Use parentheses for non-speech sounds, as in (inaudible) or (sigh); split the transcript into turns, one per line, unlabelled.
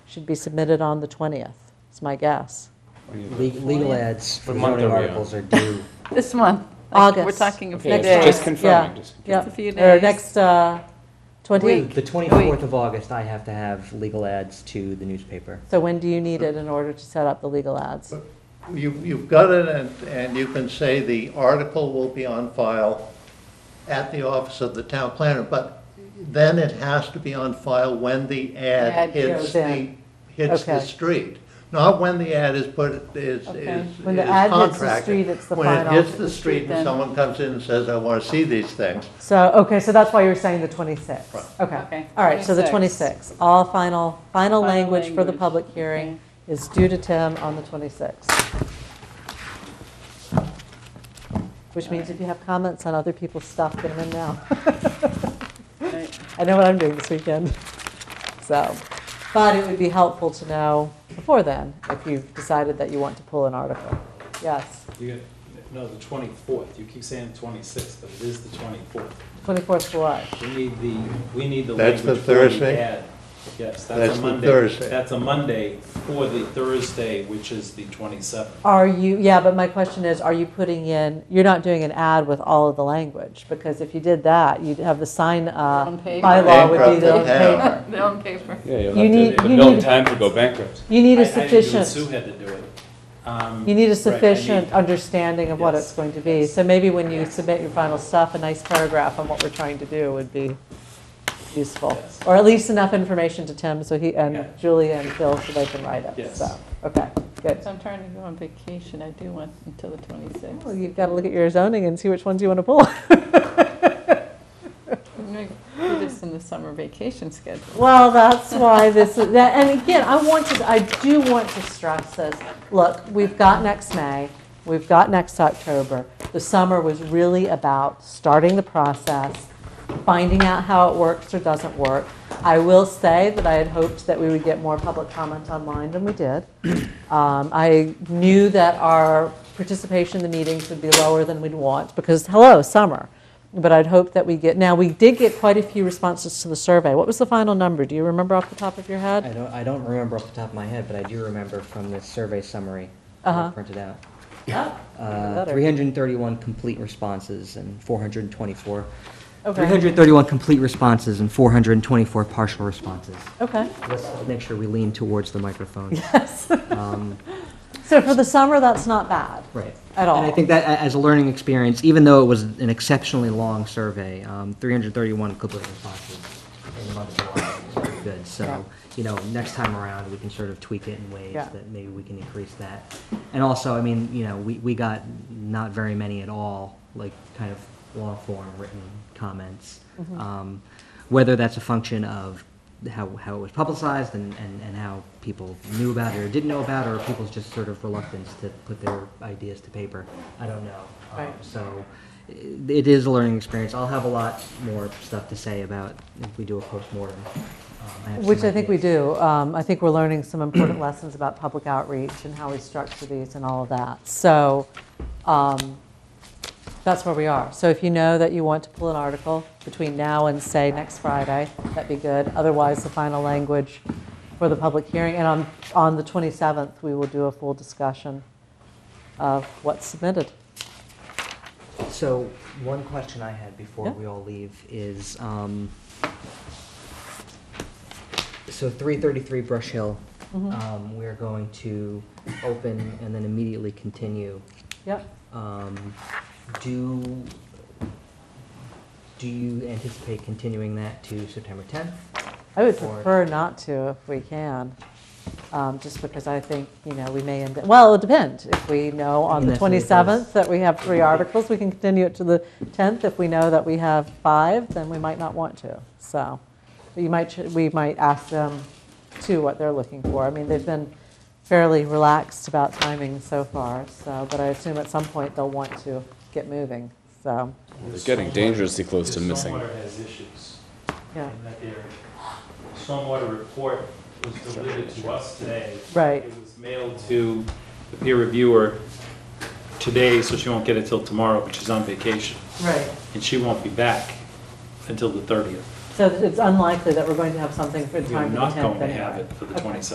should be submitted on the 20th, is my guess.
Legal legal ads for
What month
zoning
are we on?
articles are (laughs) due.
This month. Like,
August.
We're talking a few
Next
days.
Just
Just
confirming,
confirming,
just
Yeah.
a few
Or
days.
next uh, 20.
Week.
The 24th of August, I have to have legal ads to the newspaper.
So when do you need it in order to set up the legal ads?
You, you've got it, and, and you can say the article will be on file at the office of the town planner, but then it has to be on file when the
Ad
ad hits
goes
the,
in.
hits the
Okay.
Okay.
street. Not when the ad is put, is, is is
Okay.
contracted.
When the ad hits the street, it's the
When
final.
it hits the street
Then-
and someone comes in and says, I want to see these things,
So, okay, so that's why you're saying the 26th.
Right.
Okay.
Okay,
All right, so the
26th.
26th. All final, final
Final
language for the
language,
public hearing is due to Tim on the 26th. Which means if you have comments on other people's stuff, get them in
(laughs)
now.
Right.
I know what I'm doing this weekend. So, but it would be helpful to know before then if you've decided that you want to pull an article. Yes,
You get, no, the twenty-fourth, you keep saying twenty-sixth, but it is the twenty-fourth.
24th July.
We need the, we need the
That's
language
the
for the
Thursday?
ad. Yes,
That's
that's a
the
Monday.
Thursday.
That's a Monday for the Thursday, which is the twenty-seventh.
Are you, yeah, but my question is, are you putting in, you're not doing an ad with all of the language? Because if you did that, you'd have the sign uh,
On paper.
bylaw would be
Bankrupt the
the on
town.
paper.
They're on paper.
Yeah, you'll
You need-
have to,
you
but no
need-
time to go bankrupt.
You need
I-
a
I didn't do it, Sue
sufficient,
had to do it. Um,
you need a
Right, I need-
sufficient understanding of what
Yes.
it's going to be. So maybe when you submit your final stuff, a nice paragraph on what we're trying to do would be useful.
Yes.
Or at least enough information to Tim so he,
Yeah.
and Julie and Phil so they can write it.
Yes.
So, okay, good.
So I'm trying to go on vacation. I do want until the
Well,
26th.
you've got to look at your zoning and see which ones you want to pull.
I'm going to do this in the summer vacation schedule.
Well, that's why this, is that, and again, I want to, I do want to stress this. Look, we've got next May, we've got next October. The summer was really about starting the process, finding out how it works or doesn't work. I will say that I had hoped that we would get more public comment online than we did. Um, I knew that our participation in the meetings would be lower than we'd want because, hello, summer. But I'd hope that we get, now, we did get quite a few responses to the survey. What was the final number? Do you remember off the top of your
I
head?
don't, I don't remember off the top of my head, but I do remember from the survey summary
Uh-huh.
that I printed out. Uh,
Oh, better.
331 complete responses and 424.
Okay,
331 complete responses and 424 partial responses.
okay,
Let's make sure we lean towards the (laughs) microphone.
yes.
Um,
So for the summer, that's not bad.
Right.
At all.
And I think that a- as a learning experience, even though it was an exceptionally long survey, um, 331 complete responses in the month of July is pretty good.
Yeah.
So, you know, next time around, we can sort of tweak it in ways
Yeah.
that maybe we can increase that. And also, I mean, you know, we, we got not very many at all, like kind of long form written comments.
Mm-hmm.
Um, Whether that's a function of how, how it was publicized and, and, and how people knew about it or didn't know about it, or people's just sort of reluctance to put their ideas to paper. I don't know. Um,
Right.
So i- it is a learning experience. I'll have a lot more stuff to say about if we do a postmortem. Um, have some
Which I think we
ideas.
do. Um, I think we're learning some important (clears throat) lessons about public outreach and how we structure these and all of that. So um, that's where we are. So if you know that you want to pull an article between now and, say, next Friday, that'd be good. Otherwise, the final language for the public hearing. And on, on the 27th, we will do a full discussion of what's submitted.
So one question I had before
Yeah.
we all leave is, um, so 333 Brush Hill, um, we're going to open and then immediately continue.
Yep.
Um, Do, do you anticipate continuing that to September 10th?
I would
Or-
prefer not to if we can, um, just because I think, you know, we may end, up- well, it depends. If we know on the
Unless we
27th that we have three articles, we can continue it to the 10th. If we know that we have five, then we might not want to. So you might, ch- we might ask them to what they're looking for. I mean, they've been fairly relaxed about timing so far, so, but I assume at some point they'll want to get moving, so,
They're getting dangerously close to
The
missing.
Stormwater has issues.
yeah.
in that their stormwater report was delivered to us today.
Right.
It was mailed to the peer reviewer today, so she won't get it till tomorrow, but she's on vacation,
Right.
and she won't be back until the 30th.
So it's unlikely that we're going to have something for the
We're
time of the 10th
not going to
anyway.
have it for the
Okay.
27th.